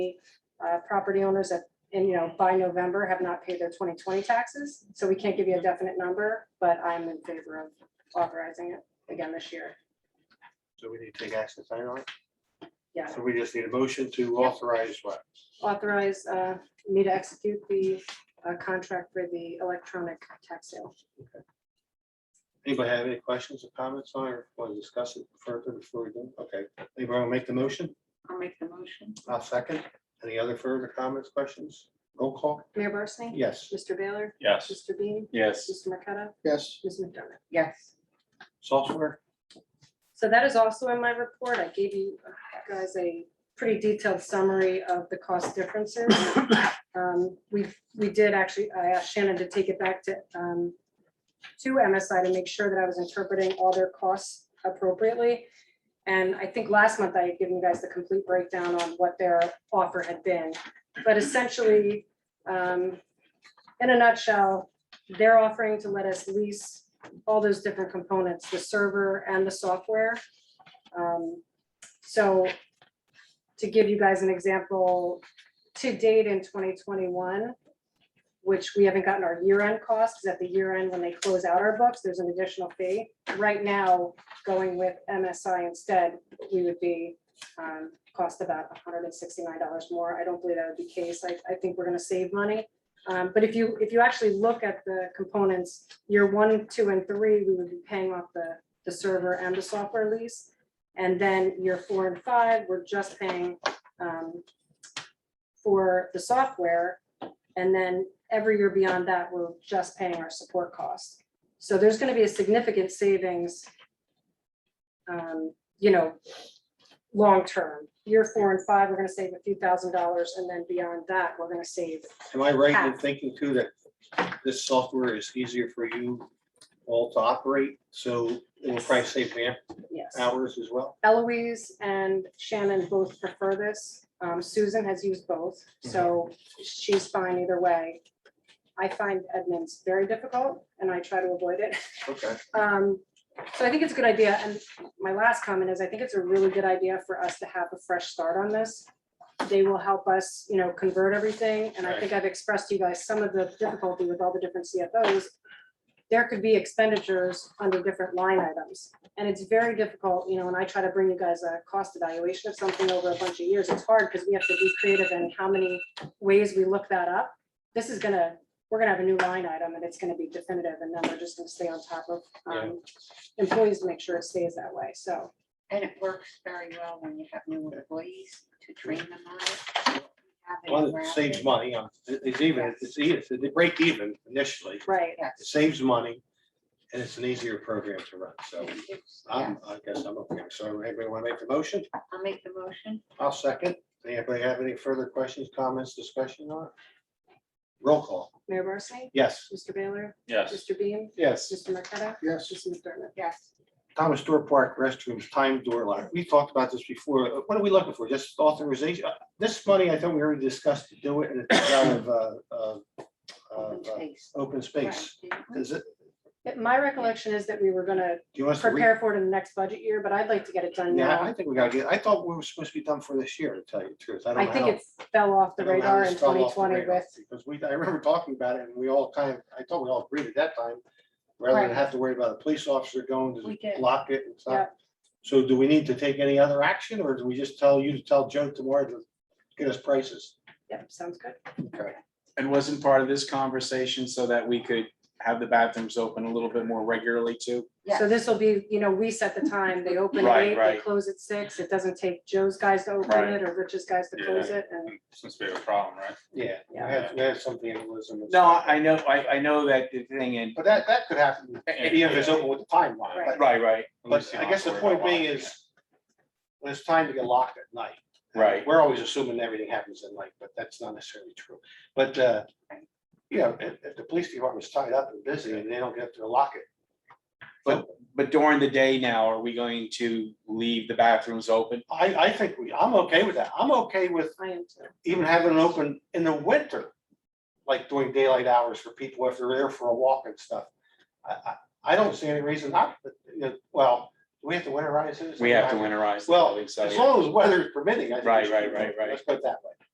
uh, property owners that, and you know, by November have not paid their 2020 taxes. So we can't give you a definite number, but I'm in favor of authorizing it again this year. So we need to take action tonight on it. Yeah, So we just need a motion to Yep. authorize what? authorize uh, me to execute the uh, contract for the electronic tax sale. Anybody have any questions or comments on it, or want to discuss it further before we do? Okay, anybody want to make the motion? I'll make the motion. I'll second. Any other further comments, questions? Roll call? Mayor Barsney? Yes. Mr. Baylor? Yes. Mr. Bean? Yes. Mr. Marqueta? Yes. Ms. McDermott? Yes. Software? So that is also in my report. I gave you guys a pretty detailed summary of the cost differences. Um, We, we did actually, I asked Shannon to take it back to, um, to MSI to make sure that I was interpreting all their costs appropriately. And I think last month I had given you guys the complete breakdown on what their offer had been. But essentially, um, in a nutshell, they're offering to let us lease all those different components, the server and the software. Um, So to give you guys an example, to date in twenty twenty-one, which we haven't gotten our year-end costs, because at the year-end, when they close out our books, there's an additional fee. Right now, going with MSI instead, we would be, um, cost about hundred and sixty-nine dollars more. I don't believe that would be the case. I, I think we're gonna save money. Um, but if you, if you actually look at the components, year one, two, and three, we would be paying off the, the server and the software lease. And then year four and five, we're just paying, um, for the software. And then every year beyond that, we're just paying our support costs. So there's gonna be a significant savings, um, you know, long-term. Year four and five, we're gonna save a few thousand dollars, and then beyond that, we're gonna save Am I right in thinking too that this software is easier for you all to operate? So it will probably save man Yes. hours as well? Eloise and Shannon both prefer this. Um, Susan has used both, so she's fine either way. I find admins very difficult and I try to avoid it. Okay. Um, so I think it's a good idea. And my last comment is I think it's a really good idea for us to have a fresh start on this. They will help us, you know, convert everything. And I think I've expressed to you guys some of the difficulty with all the different CFOs. There could be expenditures under different line items. And it's very difficult, you know, when I try to bring you guys a cost evaluation of something over a bunch of years, it's hard because we have to be creative in how many ways we look that up. This is gonna, we're gonna have a new line item and it's gonna be definitive and then we're just gonna stay on top of um, employees to make sure it stays that way. So And it works very well when you have new employees to train them on it. Have it One, it around saves it. money. um, it- It's even, it's, it's, they break even initially. right, It Yes. saves money and it's an easier program to run. So It gives- I'm, yes. I guess I'm okay. So anybody want to make the motion? I'll make the motion. I'll second. Anybody have any further questions, comments, discussion on it? Roll call. Mayor Barsney? Yes. Mr. Baylor? Yes. Mr. Beam? Yes. Mr. Marqueta? Yes. Mr. McDermott? Yes. Thomas Door Park restrooms, time door lock. We talked about this before. What are we looking for? Just authorization? Uh, This money, I thought we already discussed to do it and it's out of, uh, uh, uh, Open space. open space. Right, didn't we? Does it, Yeah, My recollection is that we were gonna do you want us to read? prepare for it in the next budget year, but I'd like to get it done Yeah, I now. think we gotta get, I thought we were supposed to be done for this year, to tell you the truth. I I don't know. think how- it fell off I the don't know how radar this in fell twenty off the twenty radar, with, Because we, I remember talking about it and we all kind of, I thought we all agreed at that time, rather than Right. have to worry about a police officer going We to did. block it and stuff. Yeah. So do we need to take any other action or do we just tell you to tell Joe tomorrow to get us prices? yeah, sounds good. Okay. And wasn't part of this conversation so that we could have the bathrooms open a little bit more regularly too? So Yes. this will be, you know, we set the time. They open at Right, eight, they right. close at six. It doesn't take Joe's guys to open Right. it or Rich's guys to close it and. Since we have a problem, right? Yeah, we Yeah. had, we had something in Lisbon. and No, stuff. I know, I, I know that the thing and, But that, that could happen, even if it's open with the timeline. Right. but- right, right, But I guess the point being is, when it's time to get locked at night. Right. We're always assuming everything happens at night, but that's not necessarily true. But, uh, you know, if, if the police department's tied up and busy and they don't get to lock it. But but during the day now, are we going to leave the bathrooms open? I, I think we, I'm okay with that. I'm okay with I am too. even having it open in the winter. Like doing daylight hours for people if they're there for a walk and stuff. I, I, I don't see any reason not, but, you know, well, do we have to winterize it. We have to winterize. the Well, building, so As yeah. long as weather is permitting. I think we Right, should right, do it. right, right. Let's put it that way.